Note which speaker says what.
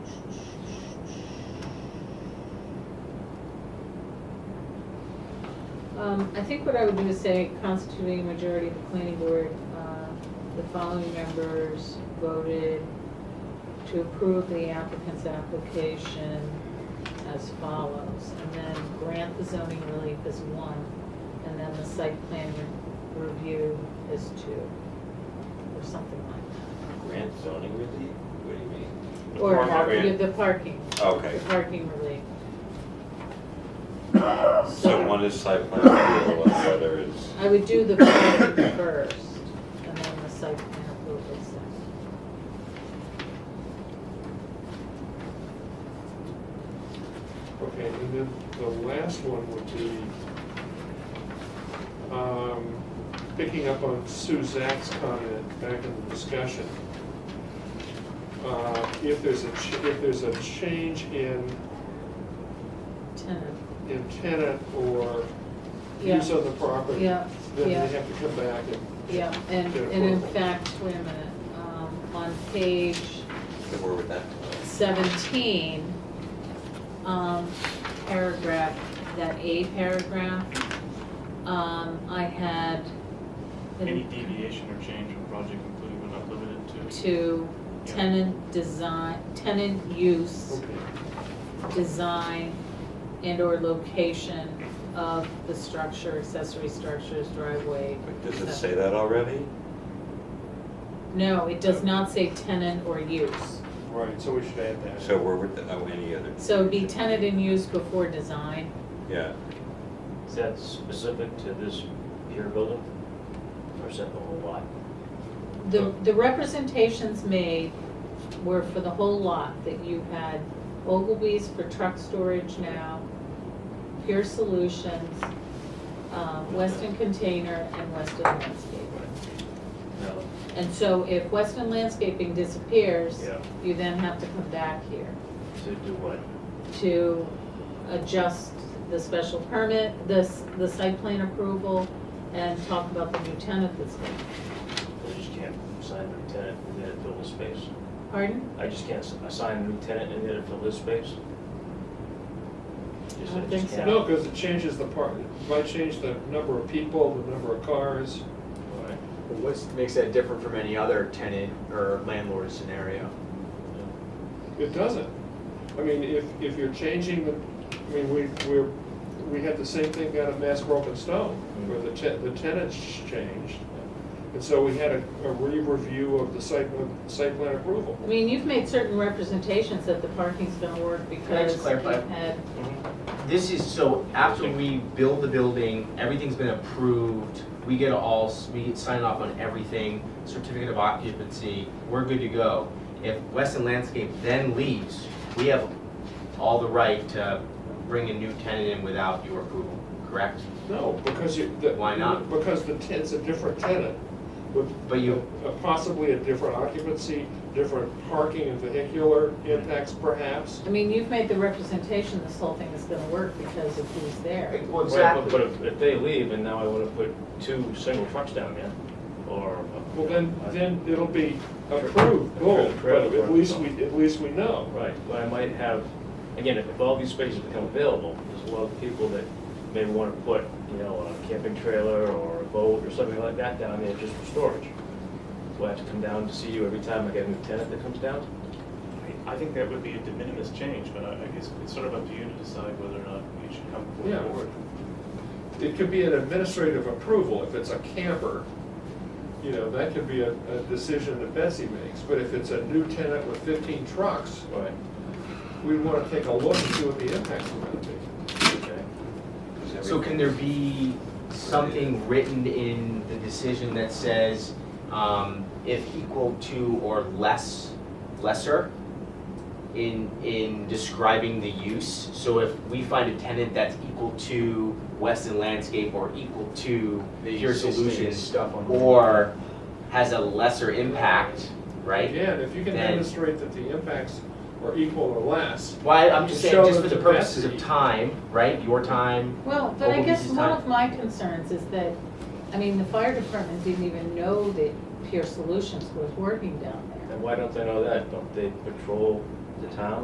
Speaker 1: Um, I think what I would do is say constituting a majority of the planning board, uh, the following members voted to approve the applicant's application as follows, and then grant the zoning relief as one, and then the site plan re- review as two, or something like
Speaker 2: Grant zoning relief? What do you mean?
Speaker 1: that.
Speaker 2: The
Speaker 1: Or
Speaker 2: park
Speaker 1: uh,
Speaker 2: grant?
Speaker 1: the parking,
Speaker 2: Okay,
Speaker 1: the parking relief.
Speaker 2: so one is site plan approval and the other is,
Speaker 1: I would do the voting first, and then the site plan approval second.
Speaker 3: Okay, and then the last one would be, um, picking up on Sue Zach's comment back in the discussion. Uh, If there's a, ch- if there's a change in,
Speaker 1: Tenant,
Speaker 3: in tenant or
Speaker 1: Yeah.
Speaker 3: use of the property,
Speaker 1: Yeah,
Speaker 3: then they
Speaker 1: yeah.
Speaker 3: have to come back and.
Speaker 1: yeah, and,
Speaker 3: Get
Speaker 1: and in
Speaker 3: approval.
Speaker 1: fact, wait a minute, um, on page
Speaker 2: where would that go?
Speaker 1: 17, um, paragraph, that A paragraph, um, I had
Speaker 4: Any deviation or change from project included but not limited to.
Speaker 1: to tenant design, tenant use,
Speaker 3: Okay.
Speaker 1: design, and/or location of the structure, accessory structures, driveway.
Speaker 2: Wait, Does it
Speaker 1: etc.
Speaker 2: say that already?
Speaker 1: No, it does not say tenant or use.
Speaker 3: Right, so we should add that.
Speaker 2: So where would, the- oh, any other,
Speaker 1: So be tenant and use before design.
Speaker 2: yeah,
Speaker 5: Is that specific to this pier building? Or is that the whole lot?
Speaker 2: Oh.
Speaker 1: The, the representations made were for the whole lot, that you had Ogilvy's for truck storage now, Pure Solutions, um, Weston Container, and Weston Landscaping.
Speaker 5: No.
Speaker 1: And so if Weston Landscaping disappears,
Speaker 5: Yeah.
Speaker 1: you then have to come back here
Speaker 5: To do what?
Speaker 1: to adjust the special permit, this, the site plan approval, and talk about the new tenant that's going.
Speaker 5: I just can't assign a new tenant and then fill the space.
Speaker 1: Pardon?
Speaker 5: I just can't assign a new tenant and then fill this space? Just-
Speaker 1: I don't think so.
Speaker 5: can't.
Speaker 3: No, because it changes the part, it might change the number of people, the number of cars.
Speaker 5: All right.
Speaker 6: What makes that different from any other tenant or landlord scenario?
Speaker 3: It doesn't. I mean, if, if you're changing the, I mean, we, we're, we had the same thing down at Mass Broken Stone, where the ten, the tenants changed. And so we had a, a re-review of the site, plan- site plan approval.
Speaker 1: I mean, you've made certain representations that the parking's gonna work because you've
Speaker 6: clarify?
Speaker 1: had,
Speaker 6: This is, so after we build the building, everything's been approved, we get all, we sign off on everything, certificate of occupancy, we're good to go. If Weston Landscape then leaves, we have all the right to bring a new tenant in without your approval, correct?
Speaker 3: No, because you, the.
Speaker 6: Why not?
Speaker 3: Because the, ten- it's a different tenant with.
Speaker 6: But you-
Speaker 3: a- Possibly a different occupancy, different parking and vehicular impacts perhaps.
Speaker 1: I mean, you've made the representation this whole thing is gonna work because of who's there.
Speaker 6: Well,
Speaker 5: Right, But but if, if they leave and now I wanna put two single trucks down there, or.
Speaker 3: Well, then, then it'll be approved, boom, but at least we, at least we know.
Speaker 5: Right, but I might have, again, if if all these spaces become available, there's a lot of people that may want to put, you know, a camping trailer or a boat or something like that down there just for storage. Do I have to come down to see you every time I get a new tenant that comes down?
Speaker 4: I I think that would be a de minimis change, but I I guess it's sort of up to you to decide whether or not you should come
Speaker 3: Yeah.
Speaker 4: forward.
Speaker 3: It could be an administrative approval, if it's a camper, you know, that could be a, a decision that Betsy makes. But if it's a new tenant with fifteen trucks,
Speaker 5: Right.
Speaker 3: we wanna take a look and see what the impacts are gonna be.
Speaker 5: Okay.
Speaker 6: So can there be something written in the decision that says, um, if equal to or less, lesser in, in describing the use? So if we find a tenant that's equal to Weston Landscape or equal to Pure Solutions
Speaker 7: stuff on the-
Speaker 6: or has a lesser impact, right?
Speaker 3: Again, if you can
Speaker 6: Then-
Speaker 3: demonstrate that the impacts are equal or less,
Speaker 6: Why, I'm just saying,
Speaker 3: Show
Speaker 6: just
Speaker 3: them
Speaker 6: for the
Speaker 3: the
Speaker 6: purposes of
Speaker 3: capacity.
Speaker 6: time, right, your time,
Speaker 1: Well, but I
Speaker 6: Well,
Speaker 1: guess
Speaker 6: this is
Speaker 1: one
Speaker 6: time.
Speaker 1: of my concerns is that, I mean, the fire department didn't even know that Pure Solutions was working down there.
Speaker 5: And why don't they know that? Don't they patrol the town?